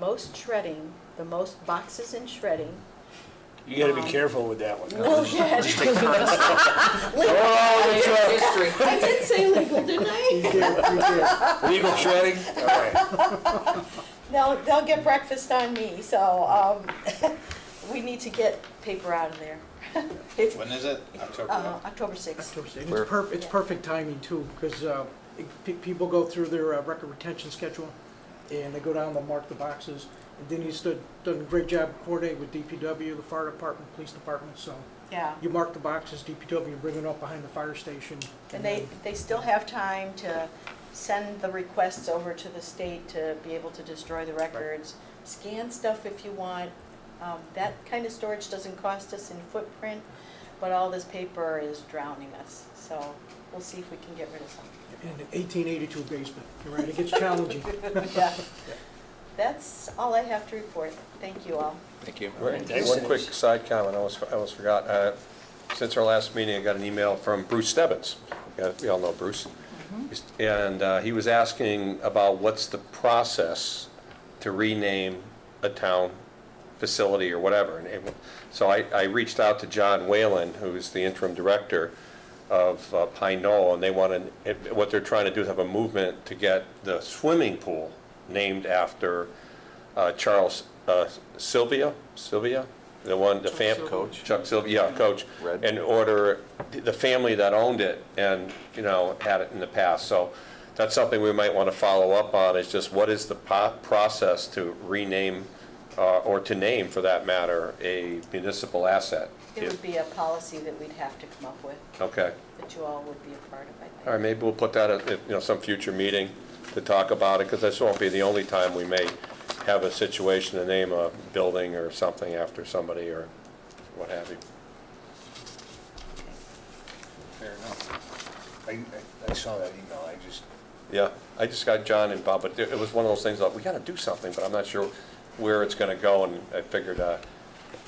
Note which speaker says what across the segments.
Speaker 1: most shredding, the most boxes in shredding.
Speaker 2: You gotta be careful with that one.
Speaker 1: Will get.
Speaker 2: Oh,
Speaker 3: History.
Speaker 1: I did say legal, didn't I?
Speaker 2: Legal shredding? All right.
Speaker 1: They'll, they'll get breakfast on me, so, um, we need to get paper out of there. It's,
Speaker 4: When is it? October
Speaker 1: uh,
Speaker 4: what?
Speaker 1: October sixth.
Speaker 5: October 6th. It's perfect, it's perfect timing too, because people go through their uh, record retention schedule, and they go down, they'll mark the boxes. And Denise did, done a great job coordinating with DPW, the fire department, police department, so
Speaker 1: Yeah,
Speaker 5: you mark the boxes, DPW, bring it up behind the fire station.
Speaker 1: and they, they still have time to send the requests over to the state to be able to destroy the records. Scan stuff if you want. Um, that kind of storage doesn't cost us in footprint, but all this paper is drowning us, so we'll see if we can get rid of some.
Speaker 5: In an 1882 basement, you're right, it gets challenging.
Speaker 1: Yeah. That's all I have to report. Thank you all.
Speaker 3: Thank you.
Speaker 2: Right, thanks,
Speaker 6: One
Speaker 2: Denise.
Speaker 6: quick side comment, I almost, I almost forgot. Uh, Since our last meeting, I got an email from Bruce Stebbins. Yeah, We all know Bruce. And uh, he was asking about what's the process to rename a town facility or whatever. And it- So I, I reached out to John Whalen, who's the interim director of uh, Pine Knoll, and they want to, what they're trying to do is have a movement to get the swimming pool named after uh, Charles uh, Sylvia, Sylvia, the one, the fam.
Speaker 5: Sylvia.
Speaker 6: Coach. Chuck Sylvia, yeah, coach.
Speaker 3: Red.
Speaker 6: And order, the family that owned it and, you know, had it in the past. So that's something we might want to follow up on, is just what is the po- process to rename, uh, or to name, for that matter, a municipal asset?
Speaker 1: It would be a policy that we'd have to come up with,
Speaker 6: Okay.
Speaker 1: that you all would be a part of, I think.
Speaker 6: All right, maybe we'll put that at, at, you know, some future meeting to talk about it, because this won't be the only time we may have a situation to name a building or something after somebody or what have you.
Speaker 4: Fair enough.
Speaker 2: I, I- I saw that email, I just,
Speaker 6: Yeah, I just got John and Bob, but it it was one of those things, like, we gotta do something, but I'm not sure where it's gonna go, and I figured, uh,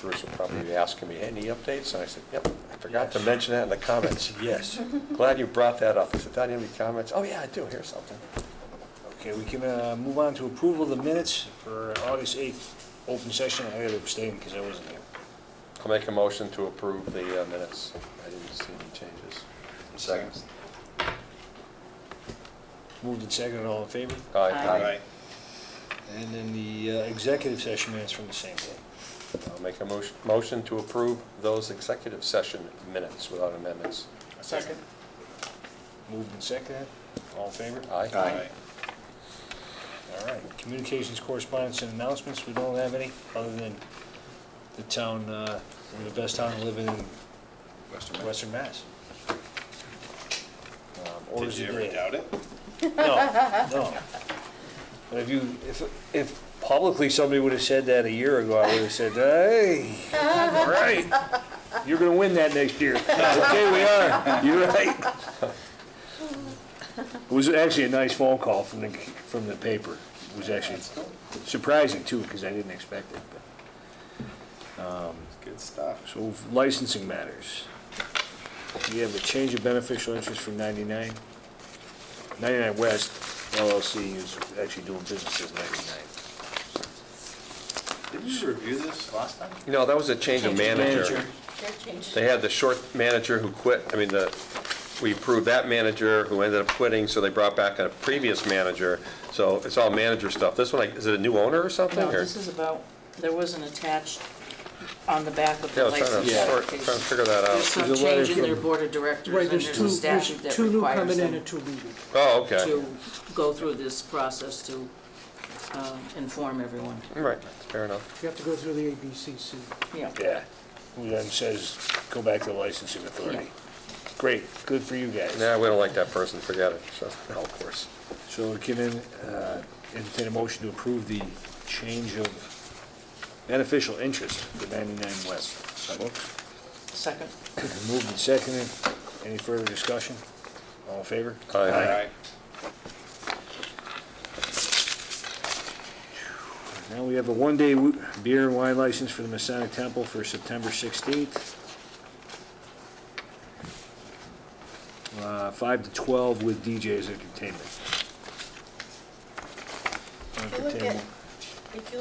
Speaker 6: Bruce will probably be asking me, any updates? And I said, yep, I forgot to mention that in the comments.
Speaker 2: yes.
Speaker 6: Glad you brought that up. I said, "Don, you have any comments? Oh, yeah, I do, here's something.
Speaker 2: Okay, we can uh, move on to approval of the minutes for August 8th, open session. I gotta abstain because I wasn't there.
Speaker 6: I'll make a motion to approve the uh, minutes. I didn't see any changes.
Speaker 4: Second.
Speaker 2: Moved and seconded, all in favor?
Speaker 1: Aye.
Speaker 2: And then the uh, executive session minutes from the same day.
Speaker 6: I'll make a motion, motion to approve those executive session minutes without amendments.
Speaker 1: Second.
Speaker 2: Moved and seconded, all in favor?
Speaker 6: Aye.
Speaker 4: Aye.
Speaker 2: All right, communications, correspondence, and announcements, we don't have any, other than the town, uh, we're the best town living in
Speaker 4: Western Mass.
Speaker 2: Western Mass. Um,
Speaker 4: Did
Speaker 2: orders
Speaker 4: you
Speaker 2: of the
Speaker 4: ever
Speaker 2: day.
Speaker 4: doubt it?
Speaker 2: No, no. But if you, if, if publicly somebody would have said that a year ago, I would have said, hey, all right, you're gonna win that next year. Okay, we are, you're right. It was actually a nice phone call from the, from the paper. It was actually surprising too, because I didn't expect it. but-
Speaker 3: Good stuff.
Speaker 2: So licensing matters. We have a change of beneficial interest from 99. 99 West LLC is actually doing business as 99.
Speaker 3: Did you review this last time?
Speaker 6: You know, that was a change of manager.
Speaker 1: Chair changes.
Speaker 6: They had the short manager who quit, I mean, the, we approved that manager who ended up quitting, so they brought back a previous manager. So it's all manager stuff. This one, like, is it a new owner or something?
Speaker 7: No,
Speaker 6: or-
Speaker 7: this is about, there was an attached on the back of
Speaker 6: Yeah, I
Speaker 7: the
Speaker 6: was trying
Speaker 7: license
Speaker 6: to, sort- trying to
Speaker 7: application.
Speaker 6: figure that
Speaker 7: There's
Speaker 6: out.
Speaker 7: some
Speaker 4: There's a letter
Speaker 7: change in their
Speaker 4: from-
Speaker 7: board of directors,
Speaker 5: Right,
Speaker 7: and
Speaker 5: there's
Speaker 7: there's
Speaker 5: two,
Speaker 7: a
Speaker 5: there's
Speaker 7: statute that
Speaker 5: two new
Speaker 7: requires
Speaker 5: coming in
Speaker 7: them
Speaker 5: and two leaving.
Speaker 6: Oh, okay.
Speaker 7: to go through this process to um, inform everyone.
Speaker 6: All Right, fair enough.
Speaker 5: You have to go through the ABCC.
Speaker 7: Yeah.
Speaker 2: Yeah, who then says, go back to the licensing authority. Great, good for you guys.
Speaker 6: Nah, we don't like that person, forget it. So, no, of course.
Speaker 2: So we can uh, entertain a motion to approve the change of beneficial interest for 99 West.
Speaker 7: Second.
Speaker 2: Moved and seconded. Any further discussion? All in favor?
Speaker 6: Aye.
Speaker 4: Aye.
Speaker 2: Now we have a one-day wo- beer and wine license for the Masonic Temple for September 16th. Uh, 5 to 12 with DJs entertainment.
Speaker 1: If you look at-
Speaker 2: Entertainment.
Speaker 1: If you